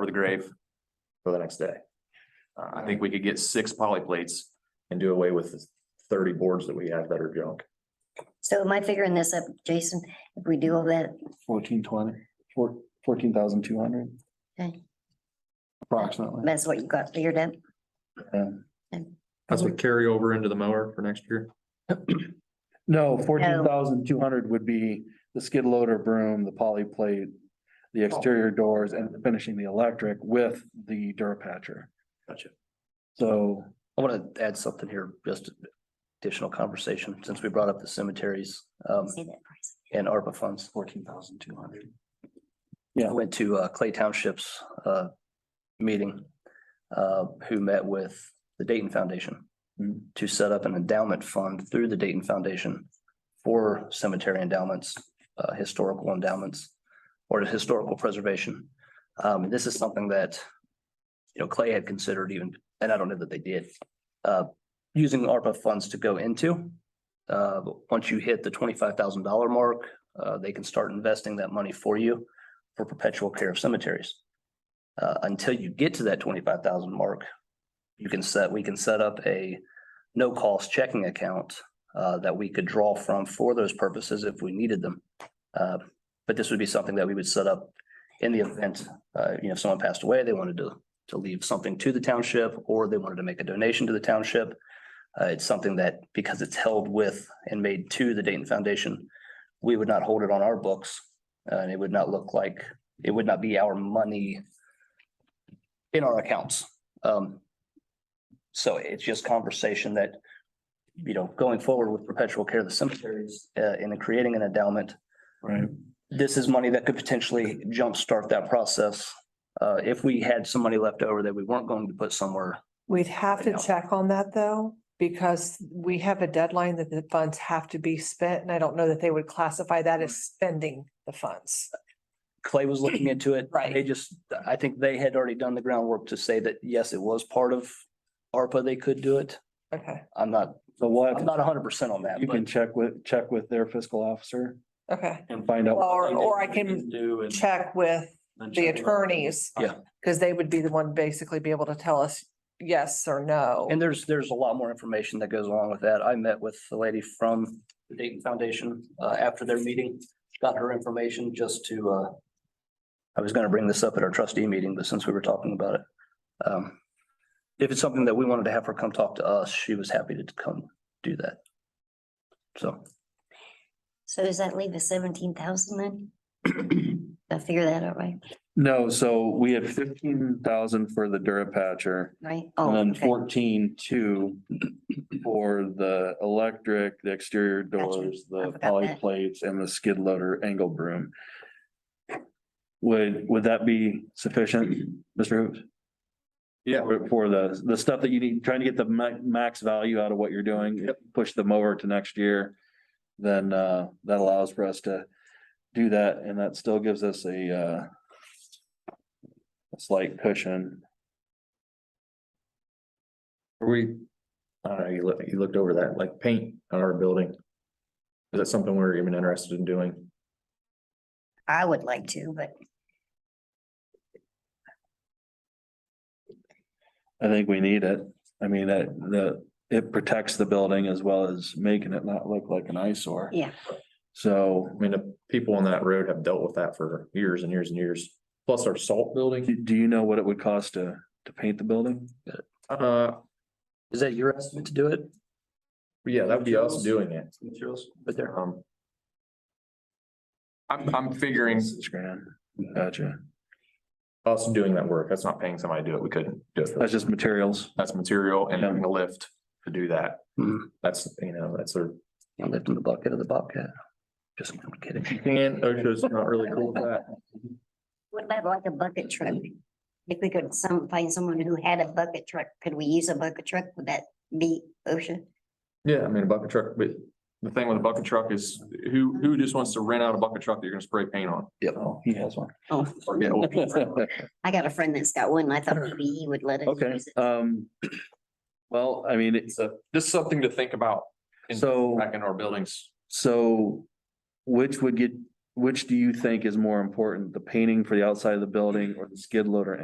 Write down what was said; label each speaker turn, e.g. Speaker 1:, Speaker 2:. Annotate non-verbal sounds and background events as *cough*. Speaker 1: for the grave
Speaker 2: for the next day
Speaker 1: Uh, I think we could get six poly plates.
Speaker 2: and do away with the thirty boards that we have that are junk.
Speaker 3: So am I figuring this up, Jason? If we do all that,
Speaker 4: Fourteen twenty, four, fourteen thousand two hundred.
Speaker 3: Okay.
Speaker 4: Approximately.
Speaker 3: that's what you got figured out?
Speaker 5: That's what carry over into the mower for next year.
Speaker 4: No, fourteen thousand two hundred would be the skid loader broom, the poly plate,
Speaker 6: Oh.
Speaker 4: the exterior doors and finishing the electric with the Durapatcher.
Speaker 6: Gotcha.
Speaker 4: So
Speaker 6: I want to add something here, just additional conversation, since we brought up the cemeteries um,
Speaker 3: See that price?
Speaker 6: and ARPA funds.
Speaker 4: fourteen thousand two hundred.
Speaker 6: I went to uh, Clay Township's uh, meeting, uh, who met with the Dayton Foundation
Speaker 4: Mhm.
Speaker 6: to set up an endowment fund through the Dayton Foundation for cemetery endowments, uh, historical endowments, or historical preservation. Um, and This is something that, you know, Clay had considered even, and I don't know that they did, uh, using ARPA funds to go into. Uh, but Once you hit the twenty-five thousand dollar mark, uh, they can start investing that money for you for perpetual care of cemeteries. Uh, until you get to that twenty-five thousand mark, you can set, we can set up a no-cost checking account uh, that we could draw from for those purposes if we needed them. Uh, but this would be something that we would set up in the event, uh, you know, if someone passed away, they wanted to, to leave something to the township, or they wanted to make a donation to the township. Uh, it's something that, because it's held with and made to the Dayton Foundation, we would not hold it on our books, uh, and it would not look like, it would not be our money in our accounts. Um, so it's just conversation that, you know, going forward with perpetual care of the cemeteries, uh, and in creating an endowment,
Speaker 4: Right.
Speaker 6: this is money that could potentially jumpstart that process. Uh, if we had some money left over that we weren't going to put somewhere,
Speaker 7: We'd have to
Speaker 6: Yeah.
Speaker 7: check on that though, because we have a deadline that the funds have to be spent and I don't know that they would classify that as spending the funds.
Speaker 6: Clay was looking into it.
Speaker 7: Right.
Speaker 6: They just, I think they had already done the groundwork to say that, yes, it was part of ARPA, they could do it.
Speaker 7: Okay,
Speaker 6: I'm not,
Speaker 4: So we'll have
Speaker 6: I'm
Speaker 4: to
Speaker 6: not hundred percent on that,
Speaker 4: You can
Speaker 6: but
Speaker 4: check with, check with their fiscal officer
Speaker 7: okay.
Speaker 4: and find out.
Speaker 7: Or, or I can
Speaker 5: Do and
Speaker 7: check with
Speaker 5: then
Speaker 7: the
Speaker 5: check it out.
Speaker 7: attorneys.
Speaker 6: Yeah.
Speaker 7: Cause they would be the one basically be able to tell us yes or no.
Speaker 6: and there's, there's a lot more information that goes along with that. I met with the lady from the Dayton Foundation, uh, after their meeting, got her information just to, uh, I was gonna bring this up at our trustee meeting, but since we were talking about it, um, if it's something that we wanted to have her come talk to us, she was happy to come do that. So.
Speaker 3: So does that leave us seventeen thousand
Speaker 4: *clears throat*
Speaker 3: then? Did I figure that out right,
Speaker 4: No, so we had fifteen thousand for the Durapatcher
Speaker 3: right?
Speaker 4: and
Speaker 3: Oh,
Speaker 4: then
Speaker 3: okay.
Speaker 4: fourteen two for the electric, the exterior doors, the
Speaker 3: forgot
Speaker 4: poly
Speaker 3: that.
Speaker 4: plates and the skid loader angle broom. Would, would that be sufficient, Mr. Hoops?
Speaker 1: Yeah.
Speaker 4: For- For the, the stuff that you need, trying to get the ma- max value out of what you're doing, if you push them over to next year. Then, uh, that allows for us to do that and that still gives us a, uh. a Slight cushion.
Speaker 5: Are we,
Speaker 2: I don't know, Uh, you looked, you looked over that, like paint on our building. Is that something we're even interested in doing?
Speaker 3: I would like to, but
Speaker 4: I think we need it. I mean, that, the, it protects the building as well as making it not look like an eyesore.
Speaker 3: Yeah.
Speaker 4: So
Speaker 2: I mean, the people on that road have dealt with that for years and years and years. Plus our salt building,
Speaker 4: do, do you know what it would cost to, to paint the building?
Speaker 2: uh,
Speaker 6: Is that your estimate to do it?
Speaker 2: yeah, that would be us doing it.
Speaker 6: Materials, but there.
Speaker 2: Um,
Speaker 1: I'm, I'm figuring
Speaker 4: Six grand. Gotcha.
Speaker 2: us doing that work, that's not paying somebody to do it, we couldn't do it.
Speaker 4: That's just materials.
Speaker 2: That's material and
Speaker 4: Yeah.
Speaker 2: having a lift to do that.
Speaker 1: Mm-hmm.
Speaker 6: Mhm.
Speaker 2: That's, you know, that's their
Speaker 6: I lived in the bucket of the Bobcat. Just I'm kidding.
Speaker 2: And OSHA's not really cool with that.
Speaker 3: what about like a bucket truck? If we could some, find someone who had a bucket truck, could we use a bucket truck? Would that be OSHA?
Speaker 1: Yeah, I mean, a bucket truck, but the thing with a bucket truck is who, who just wants to rent out a bucket truck that you're gonna spray paint on?
Speaker 6: Yep.
Speaker 4: Oh, he has one.
Speaker 3: Oh,
Speaker 1: Or get one?
Speaker 3: *laughs* I got a friend that's got one. and
Speaker 4: *clears throat*
Speaker 3: I thought maybe he would let us
Speaker 4: Okay,
Speaker 3: use it.
Speaker 4: um. *clears throat* Well, I mean, it's,
Speaker 1: So Just something to think about in-
Speaker 4: so,
Speaker 1: back in our buildings.
Speaker 4: so which would get, which do you think is more important? The painting for the outside of the building or the skid loader